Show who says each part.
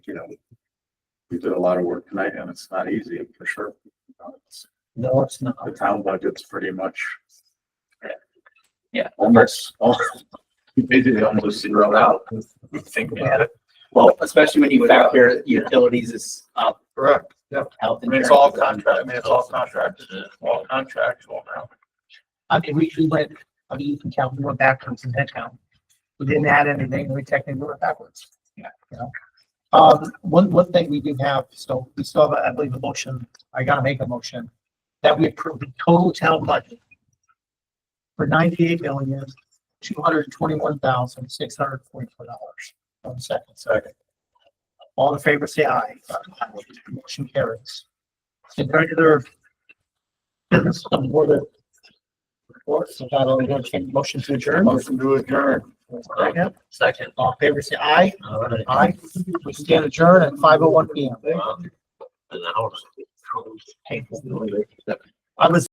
Speaker 1: you know, we did a lot of work tonight and it's not easy for sure. Uh, it's-
Speaker 2: No, it's not.
Speaker 1: The town budget's pretty much.
Speaker 2: Yeah.
Speaker 1: Almost, almost, basically almost zeroed out.
Speaker 2: Think about it. Well, especially when you factor utilities is uh, up,
Speaker 1: Correct. Yeah.
Speaker 2: health.
Speaker 1: I mean, it's all
Speaker 2: insurance.
Speaker 1: contract, I mean, it's all contracted, all contractual now.
Speaker 3: I mean, we, we went, I mean, you can count, we went backwards in head count. We didn't add anything, we technically went backwards.
Speaker 2: Yeah.
Speaker 3: You know? Um, one, one thing we do have, so we still have, I believe, a motion, I gotta make a motion, that we approve the total town budget for ninety-eight million, two hundred and twenty-one thousand, six hundred and forty-four dollars. One second. Second. All in favor, say aye. Motion carries. In regular business of the board of reports, if not, I'll entertain a motion to adjourn.
Speaker 1: Motion to adjourn.
Speaker 3: Second,
Speaker 2: Second.
Speaker 3: all in favor, say aye.
Speaker 2: All right.
Speaker 3: Aye. We stand adjourned at five oh one P M.
Speaker 2: An hour.
Speaker 3: I was